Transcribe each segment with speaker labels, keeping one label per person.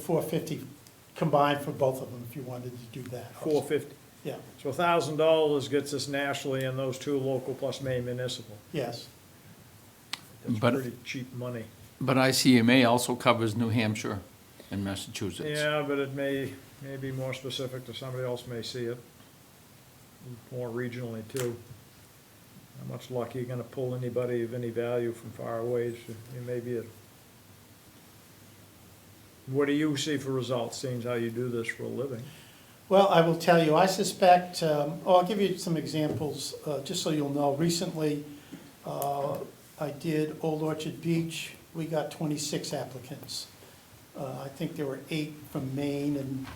Speaker 1: four fifty combined for both of them, if you wanted to do that.
Speaker 2: four fifty.
Speaker 1: Yeah,
Speaker 2: So thousand dollars gets us nationally and those two local plus Maine municipal.
Speaker 1: yes,
Speaker 2: That's
Speaker 3: But-
Speaker 2: pretty cheap money.
Speaker 3: But ICMA also covers New Hampshire and Massachusetts.
Speaker 2: Yeah, but it may, may be more specific to somebody else may see it more regionally too. How much luck you gonna pull anybody of any value from far away? It may be a. What do you see for results, seeing as how you do this for a living?
Speaker 1: Well, I will tell you, I suspect, um, oh, I'll give you some examples, uh, just so you'll know. Recently, uh, I did Old Orchard Beach, we got 26 applicants. Uh, I think there were eight from Maine and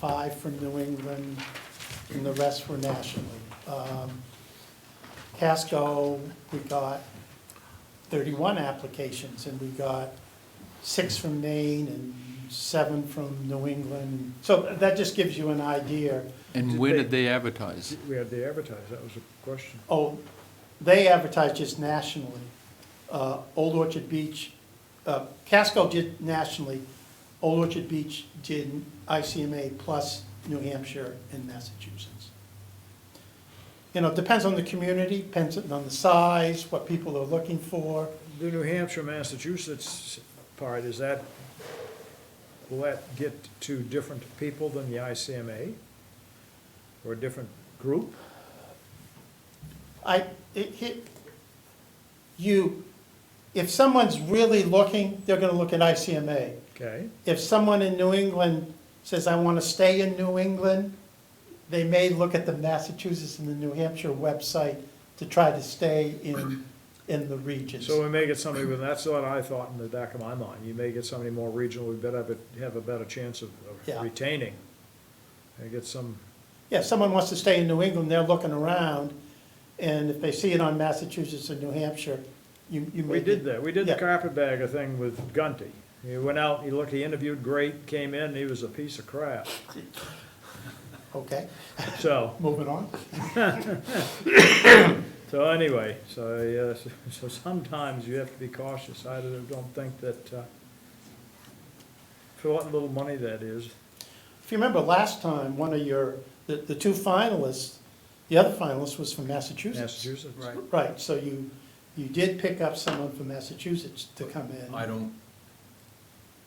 Speaker 1: five from New England, and the rest were nationally. Um, Casco, we got 31 applications, and we got six from Maine and seven from New England. So that just gives you an idea.
Speaker 3: And
Speaker 2: Did
Speaker 3: where
Speaker 2: they-
Speaker 3: did they advertise?
Speaker 2: We had to advertise, that was a question.
Speaker 1: Oh, they advertise just nationally. Uh, Old Orchard Beach, uh, Casco did nationally. Old Orchard Beach did ICMA plus New Hampshire and Massachusetts. You know, it depends on the community, depends on the size, what people are looking for.
Speaker 2: The New Hampshire, Massachusetts part, is that, will that get to different people than the ICMA? Or a different group?
Speaker 1: I, it, it, you, if someone's really looking, they're gonna look at ICMA.
Speaker 2: Okay,
Speaker 1: if someone in New England says, I want to stay in New England, they may look at the Massachusetts and the New Hampshire website to try to stay in, in the regions.
Speaker 2: so we may get somebody, with that's what I thought in the back of my mind, you may get somebody more regional, we better have a, have a better chance of of
Speaker 1: Yeah.
Speaker 2: retaining. And get some,
Speaker 1: Yeah, if someone wants to stay in New England, they're looking around, and if they see it on Massachusetts and New Hampshire, you, you may.
Speaker 2: we did
Speaker 1: be-
Speaker 2: that, we did the
Speaker 1: Yeah.
Speaker 2: carpetbagger thing with Gunty. He went out, he looked, he interviewed great, came in, he was a piece of crap,
Speaker 1: Okay,
Speaker 2: so.
Speaker 1: moving on.
Speaker 2: So anyway, so, yes, so sometimes you have to be cautious. I don't don't think that, uh, for what little money that is,
Speaker 1: If you remember last time, one of your, the, the two finalists, the other finalist was from
Speaker 2: Massachusetts. Right.
Speaker 1: Right, so you, you did pick up someone from Massachusetts to come in.
Speaker 4: I don't,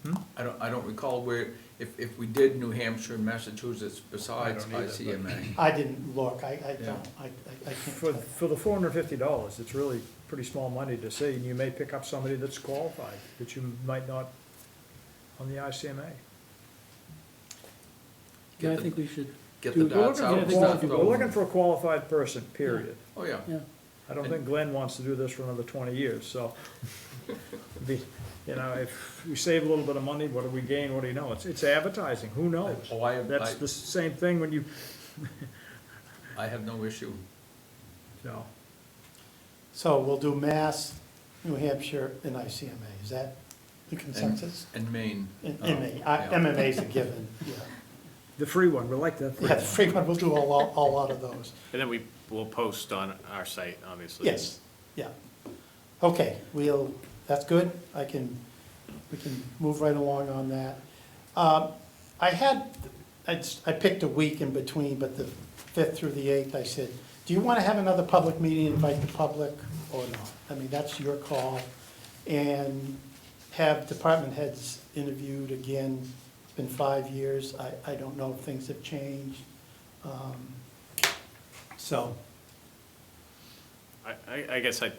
Speaker 2: Hmm?
Speaker 4: I don't, I don't recall where, if, if we did New Hampshire and Massachusetts besides
Speaker 2: I don't either, but-
Speaker 4: ICMA.
Speaker 1: I didn't look, I, I
Speaker 4: Yeah.
Speaker 1: don't, I, I I can't
Speaker 2: For,
Speaker 1: tell.
Speaker 2: for the four hundred and fifty dollars, it's really pretty small money to see, and you may pick up somebody that's qualified, that you might not on the ICMA.
Speaker 4: Get
Speaker 5: Yeah, I
Speaker 4: the-
Speaker 5: think we should,
Speaker 4: Get
Speaker 5: Dude,
Speaker 4: the
Speaker 5: we're
Speaker 4: dots
Speaker 5: looking
Speaker 4: out
Speaker 5: for
Speaker 4: and
Speaker 5: the
Speaker 4: start
Speaker 5: quality-
Speaker 2: We're looking
Speaker 4: throwing.
Speaker 2: for a qualified person, period.
Speaker 4: Oh, yeah.
Speaker 5: yeah,
Speaker 2: I don't think Glenn wants to do this for another twenty years, so. the- You know, if we save a little bit of money, what do we gain? What do you know? It's, it's advertising. Who knows?
Speaker 4: Oh, I,
Speaker 2: That's the
Speaker 4: I,
Speaker 2: same thing when you,
Speaker 4: I have no issue.
Speaker 2: no,
Speaker 1: So we'll do Mass, New Hampshire, and ICMA, is that the consensus?
Speaker 4: And Maine.
Speaker 1: And
Speaker 4: Oh,
Speaker 1: MA, I-
Speaker 4: yeah.
Speaker 1: MMA's a given, yeah.
Speaker 2: the free one, we like that. free
Speaker 1: Yeah, the
Speaker 2: one.
Speaker 1: free one, we'll do a lot, a lot of those,
Speaker 6: And then we will post on our site, obviously.
Speaker 1: yes, yeah. Okay, we'll, that's good, I can, we can move right along on that. Um, I had, I s- I picked a week in between, but the 5th through the 8th, I said, do you want to have another public meeting, invite the public or not? I mean, that's your call. And have department heads interviewed again. It's been five years. I, I don't know if things have changed. Um, So,
Speaker 6: I, I, I guess I,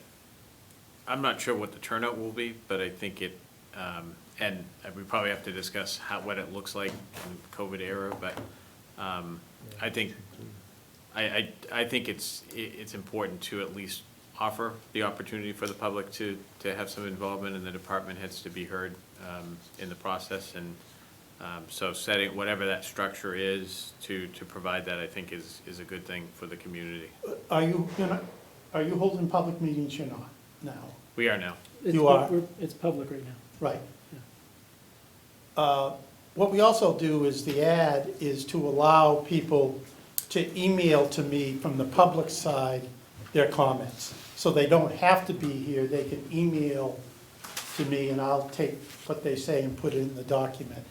Speaker 6: I'm not sure what the turnout will be, but I think it, um, and we probably have to discuss how, what it looks like in the COVID era, but, um, I think, I, I, I think it's, i it's important to at least offer the opportunity for the public to, to have some involvement and the department heads to be heard, um, in the process and, um, so setting, whatever that structure is, to, to provide that, I think is, is a good thing for the community.
Speaker 1: are you, you're not, are you holding public meetings? You're not now,
Speaker 6: We are now.
Speaker 5: it's,
Speaker 1: You are.
Speaker 5: pub- we're- it's public right now.
Speaker 1: right? Uh, What we also do is the ad is to allow people to email to me from the public side their comments. So they don't have to be here, they can email to me and I'll take what they say and put it in the document.